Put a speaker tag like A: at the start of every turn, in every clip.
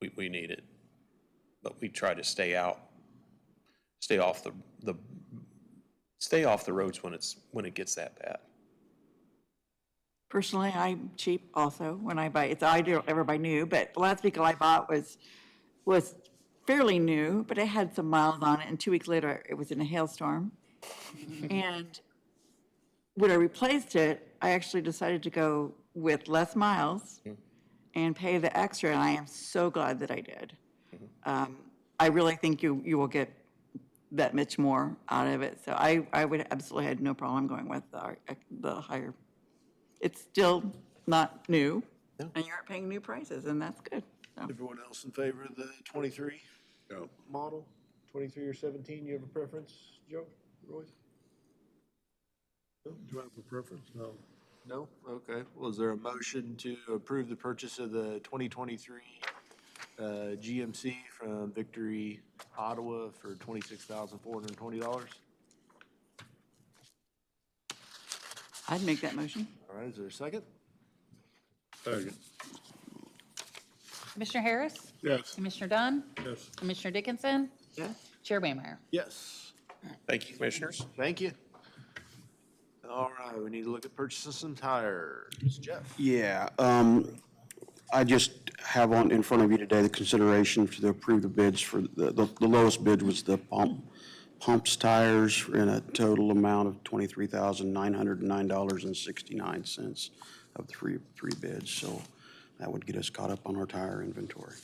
A: we, we need it. But we try to stay out, stay off the, the, stay off the roads when it's, when it gets that bad.
B: Personally, I'm cheap also when I buy, it's, I don't, everybody knew, but the last vehicle I bought was, was fairly new, but it had some miles on it, and two weeks later, it was in a hailstorm. And when I replaced it, I actually decided to go with less miles and pay the extra, and I am so glad that I did. Um, I really think you, you will get that much more out of it, so I, I would absolutely had no problem going with the, uh, the higher it's still not new, and you aren't paying new prices, and that's good. So,
C: Everyone else in favor of the twenty-three model, twenty-three or seventeen, you have a preference, Joe, Roy? No, Do I have a preference? No. No, okay, well, is there a motion to approve the purchase of the twenty twenty-three uh, GMC from Victory Ottawa for twenty-six thousand four hundred and twenty dollars?
B: I'd make that motion.
C: All right, is there a second?
D: Second.
E: Commissioner Harris?
D: Yes.
E: Commissioner Dunn?
D: Yes.
E: Commissioner Dickinson?
B: Yes.
E: Chair Waymeyer?
C: Yes.
A: Thank you, commissioners.
C: Thank you. All right, we need to look at purchasing some tires. Jeff?
F: Yeah, um, I just have on, in front of you today, the consideration to approve the bids for, the, the the lowest bid was the pump, pumps tires in a total amount of twenty-three thousand nine hundred and nine dollars and sixty-nine cents of three, three bids, so that would get us caught up on our tire inventory.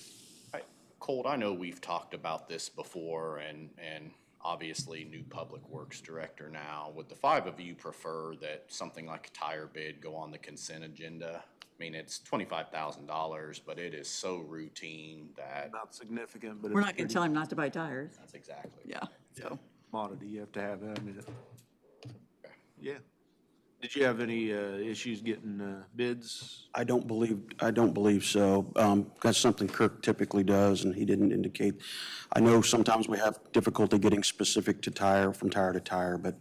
G: I- Colt, I know we've talked about this before and, and obviously new Public Works Director now. Would the five of you prefer that something like a tire bid go on the consent agenda? I mean, it's twenty-five thousand dollars, but it is so routine that,
C: Not significant, but
B: We're
C: it's
B: not
C: pretty
B: gonna tell him not to buy tires.
G: that's exactly.
B: Yeah, so.
C: commodity. You have to have that. I mean, it- Yeah. Did you have any, uh, issues getting, uh, bids?
F: I don't believe, I don't believe so. Um, That's something Kirk typically does, and he didn't indicate. I know sometimes we have difficulty getting specific to tire, from tire to tire, but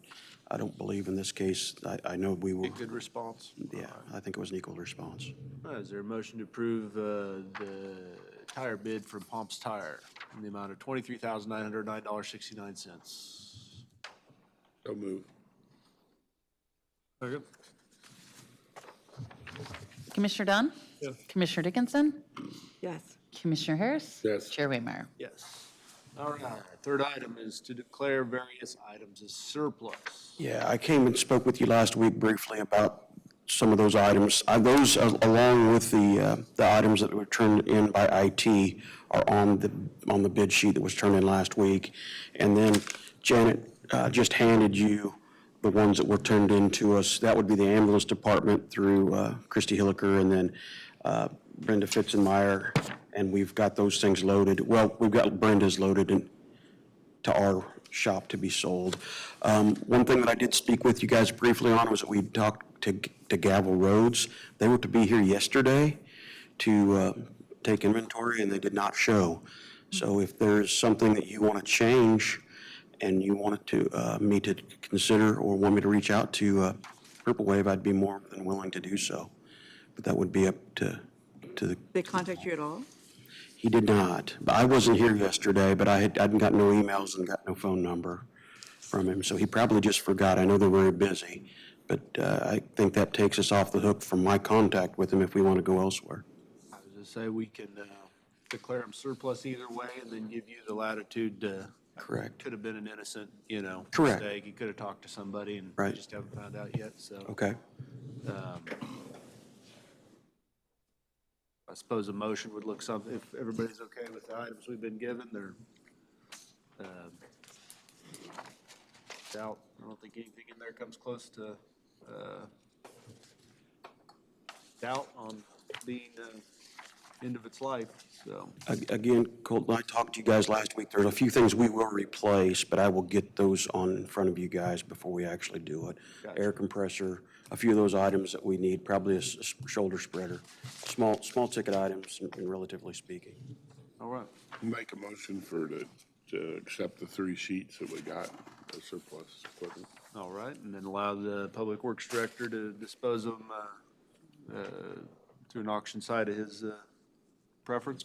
F: I don't believe in this case, I, I know we were,
C: Good response?
F: yeah, I think it was an equal response.
C: Uh, Is there a motion to approve, uh, the tire bid from Pomp's Tire in the amount of twenty-three thousand nine hundred nine dollars sixty-nine cents?
D: So move. Second.
E: Commissioner Dunn? Commissioner Dickinson?
B: Yes.
E: Commissioner Harris?
D: Yes.
E: Chair Waymeyer?
C: Yes. All right. Third item is to declare various items as surplus.
F: Yeah, I came and spoke with you last week briefly about some of those items. Uh, Those, a- along with the, uh, the items that were turned in by IT, are on the, on the bid sheet that was turned in last week. And then Janet uh, just handed you the ones that were turned in to us. That would be the ambulance department through uh, Christie Hilliker, and then uh, Brenda Fitzenmeyer, and we've got those things loaded. Well, we've got Brenda's loaded, and to our shop to be sold. Um, One thing that I did speak with you guys briefly on was that we talked to to Gavel Roads. They were to be here yesterday to uh, take inventory, and they did not show. So if there's something that you want to change and you wanted to, uh, me to consider or want me to reach out to uh, Purple Wave, I'd be more than willing to do so. But that would be up to, to the
B: They contact you at all?
F: he did not. But I wasn't here yesterday, but I had, I hadn't got no emails and got no phone number from him, so he probably just forgot. I know they're very busy, but uh, I think that takes us off the hook from my contact with him if we want to go elsewhere.
C: I was gonna say, we can, uh, declare them surplus either way and then give you the latitude to
F: Correct.
C: could have been an innocent, you know,
F: Correct.
C: mistake. He could have talked to somebody and
F: Right.
C: just haven't found out yet. So
F: Okay.
C: I suppose a motion would look something, if everybody's okay with the items we've been given, they're um, it's out. I don't think anything in there comes close to uh, doubt on being uh, end of its life. So
F: A- Again, Colton, I talked to you guys last week. There's a few things we will replace, but I will get those on in front of you guys before we actually do it. Air compressor, a few of those items that we need, probably a s- shoulder spreader, small, small ticket items, relatively speaking.
C: all right.
D: Make a motion for to, to accept the three sheets that we got, the surplus equipment.
C: All right, and then allow the Public Works Director to dispose of them uh, uh, through an auction site of his uh, preference.